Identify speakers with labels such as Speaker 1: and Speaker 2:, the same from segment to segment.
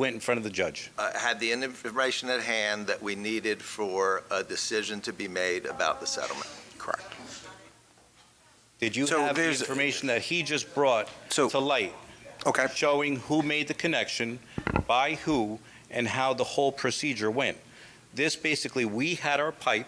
Speaker 1: went in front of the judge.
Speaker 2: uh, had the information at hand that we needed for a decision to be made about the settlement.
Speaker 3: Correct.
Speaker 1: Did you
Speaker 3: So
Speaker 1: have the
Speaker 3: there's-
Speaker 1: information that he just brought
Speaker 3: So-
Speaker 1: to light,
Speaker 3: Okay.
Speaker 1: showing who made the connection, by who, and how the whole procedure went? This basically, we had our pipe,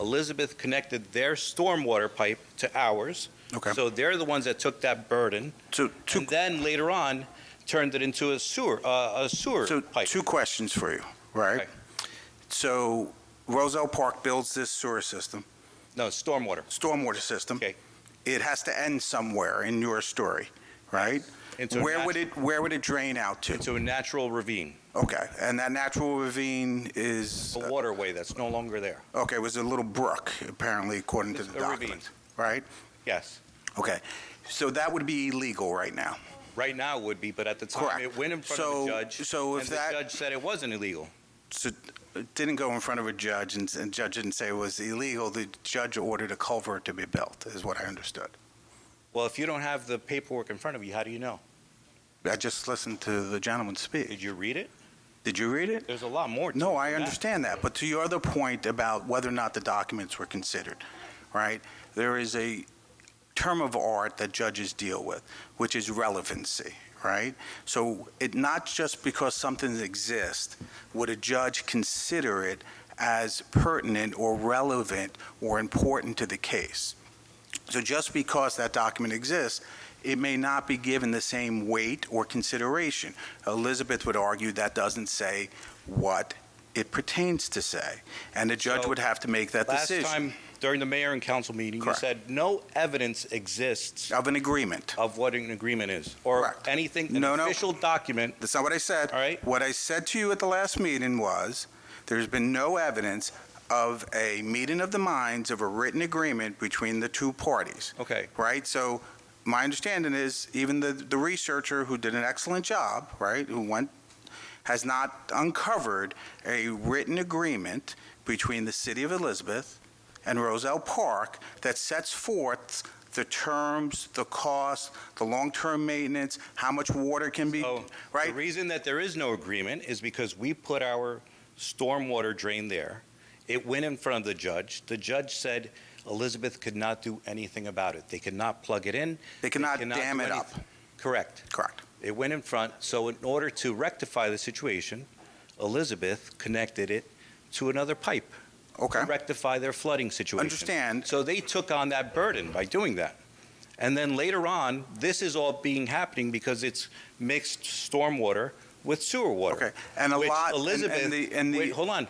Speaker 1: Elizabeth connected their stormwater pipe to ours,
Speaker 3: Okay.
Speaker 1: so they're the ones that took that burden,
Speaker 3: So two,
Speaker 1: and then later on, turned it into a sewer, uh, a sewer
Speaker 3: so
Speaker 1: pipe.
Speaker 3: two questions for you, right?
Speaker 1: Okay.
Speaker 3: So Roselle Park builds this sewer system,
Speaker 1: No, stormwater,
Speaker 3: stormwater system.
Speaker 1: Okay.
Speaker 3: It has to end somewhere in your story, right?
Speaker 1: into a
Speaker 3: Where would
Speaker 1: nat-
Speaker 3: it, where would it drain out to?
Speaker 1: into a natural ravine,
Speaker 3: Okay, and that natural ravine is,
Speaker 1: a waterway that's no longer there.
Speaker 3: okay, was a little brook, apparently, according to
Speaker 1: Oh. It's
Speaker 3: the
Speaker 1: a ravine.
Speaker 3: documents, right?
Speaker 1: Yes.
Speaker 3: Okay, so that would be illegal right now.
Speaker 1: Right now it would be, but at the time,
Speaker 3: Correct.
Speaker 1: it went in front of
Speaker 3: So-
Speaker 1: the judge.
Speaker 3: so if that-
Speaker 1: And the judge said it wasn't illegal.
Speaker 3: So it didn't go in front of a judge, and the judge didn't say it was illegal. The judge ordered a culvert to be built, is what I understood.
Speaker 1: Well, if you don't have the paperwork in front of you, how do you know?
Speaker 3: I just listened to the gentleman speak.
Speaker 1: Did you read it?
Speaker 3: Did you read it?
Speaker 1: There's a lot more to it
Speaker 3: No,
Speaker 1: than
Speaker 3: I
Speaker 1: that.
Speaker 3: understand that, but to your other point about whether or not the documents were considered, right? There is a term of art that judges deal with, which is relevancy, right? So it, not just because something exists, would a judge consider it as pertinent or relevant or important to the case? So just because that document exists, it may not be given the same weight or consideration. Elizabeth would argue that doesn't say what it pertains to say, and the judge
Speaker 1: So,
Speaker 3: would have to make that
Speaker 1: Last
Speaker 3: decision.
Speaker 1: time, during the mayor and council meeting, you
Speaker 3: Correct.
Speaker 1: said no evidence exists
Speaker 3: Of an agreement.
Speaker 1: of what an agreement is, or
Speaker 3: Correct.
Speaker 1: anything, an
Speaker 3: No, no.
Speaker 1: official document.
Speaker 3: That's not what I said.
Speaker 1: All right.
Speaker 3: What I said to you at the last meeting was, there's been no evidence of a meeting of the minds of a written agreement between the two parties,
Speaker 1: Okay,
Speaker 3: right? So my understanding is, even the, the researcher who did an excellent job, right, who went, has not uncovered a written agreement between the city of Elizabeth and Roselle Park that sets forth the terms, the cost, the long-term maintenance, how much water can be,
Speaker 1: so
Speaker 3: right?
Speaker 1: the reason that there is no agreement is because we put our stormwater drain there. It went in front of the judge. The judge said Elizabeth could not do anything about it. They could not plug it in.
Speaker 3: They cannot
Speaker 1: cannot
Speaker 3: dam
Speaker 1: do
Speaker 3: it up.
Speaker 1: anything. Correct.
Speaker 3: Correct.
Speaker 1: It went in front, so in order to rectify the situation, Elizabeth connected it to another pipe
Speaker 3: Okay.
Speaker 1: to rectify their flooding situation.
Speaker 3: Understand.
Speaker 1: So they took on that burden by doing that. And then later on, this is all being happening because it's mixed stormwater with sewer water.
Speaker 3: Okay. And a
Speaker 1: which
Speaker 3: lot. and-
Speaker 1: Elizabeth,
Speaker 3: And the, and
Speaker 1: wait,
Speaker 3: the,
Speaker 1: hold on.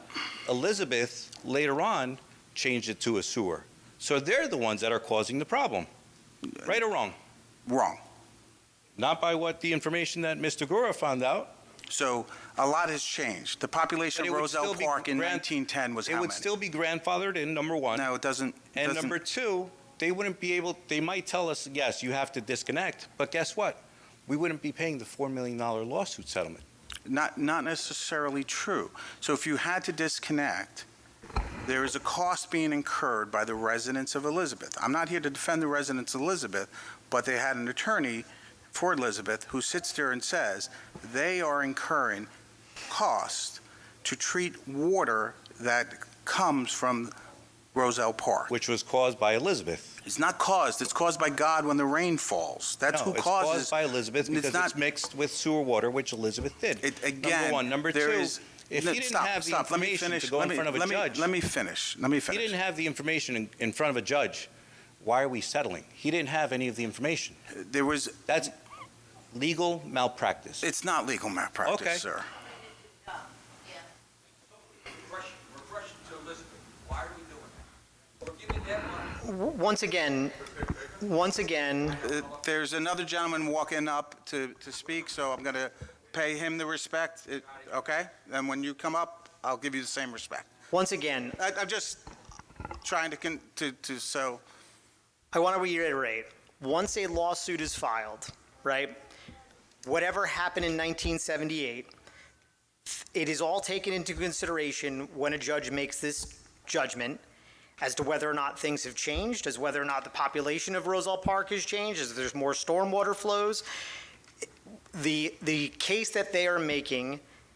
Speaker 1: Elizabeth later on changed it to a sewer. So they're the ones that are causing the problem, right or wrong?
Speaker 3: wrong.
Speaker 1: Not by what the information that Mr. Gura found out,
Speaker 3: So a lot has changed. The population
Speaker 1: But it
Speaker 3: of
Speaker 1: would
Speaker 3: Roselle
Speaker 1: still be
Speaker 3: Park in
Speaker 1: gran-
Speaker 3: 1910 was
Speaker 1: It
Speaker 3: how
Speaker 1: would
Speaker 3: many?
Speaker 1: still be grandfathered in, number one.
Speaker 3: No, it doesn't.
Speaker 1: and
Speaker 3: doesn't-
Speaker 1: number two, they wouldn't be able, they might tell us, yes, you have to disconnect, but guess what? We wouldn't be paying the $4 million lawsuit settlement.
Speaker 3: Not, not necessarily true. So if you had to disconnect, there is a cost being incurred by the residents of Elizabeth. I'm not here to defend the residents of Elizabeth, but they had an attorney for Elizabeth who sits there and says they are incurring cost to treat water that comes from Roselle Park.
Speaker 1: Which was caused by Elizabeth.
Speaker 3: It's not caused, it's caused by God when the rain falls. That's
Speaker 1: No,
Speaker 3: who
Speaker 1: it's
Speaker 3: causes.
Speaker 1: caused by Elizabeth
Speaker 3: It's
Speaker 1: because it's,
Speaker 3: not-
Speaker 1: mixed with sewer water, which Elizabeth did.
Speaker 3: It, again,
Speaker 1: one. Number
Speaker 3: there
Speaker 1: two,
Speaker 3: is-
Speaker 1: if
Speaker 3: No,
Speaker 1: he didn't
Speaker 3: stop,
Speaker 1: have the
Speaker 3: stop. Let me
Speaker 1: information to
Speaker 3: finish.
Speaker 1: go in
Speaker 3: Let me-
Speaker 1: front of a
Speaker 3: let me-
Speaker 1: judge-
Speaker 3: Let me finish. Let me
Speaker 1: he
Speaker 3: finish.
Speaker 1: didn't have the information in, in front of a judge. Why are we settling? He didn't have any of the information.
Speaker 3: There was.
Speaker 1: That's legal malpractice.
Speaker 3: It's not legal malpractice,
Speaker 1: Okay.
Speaker 3: sir.
Speaker 4: Regression, regression to Elizabeth. Why are we doing that? We're giving that money.
Speaker 5: W- Once again, once again,
Speaker 3: Uh, there's another gentleman walking up to, to speak, so I'm going to pay him the respect. It, okay? And when you come up, I'll give you the same respect.
Speaker 5: once again,
Speaker 3: I, I'm just trying to, con- to, to so.
Speaker 5: I want to reiterate, once a lawsuit is filed, right? Whatever happened in 1978, it is all taken into consideration when a judge makes this judgment as to whether or not things have changed, as whether or not the population of Roselle Park has changed, as there's more stormwater flows. The, the case that they are making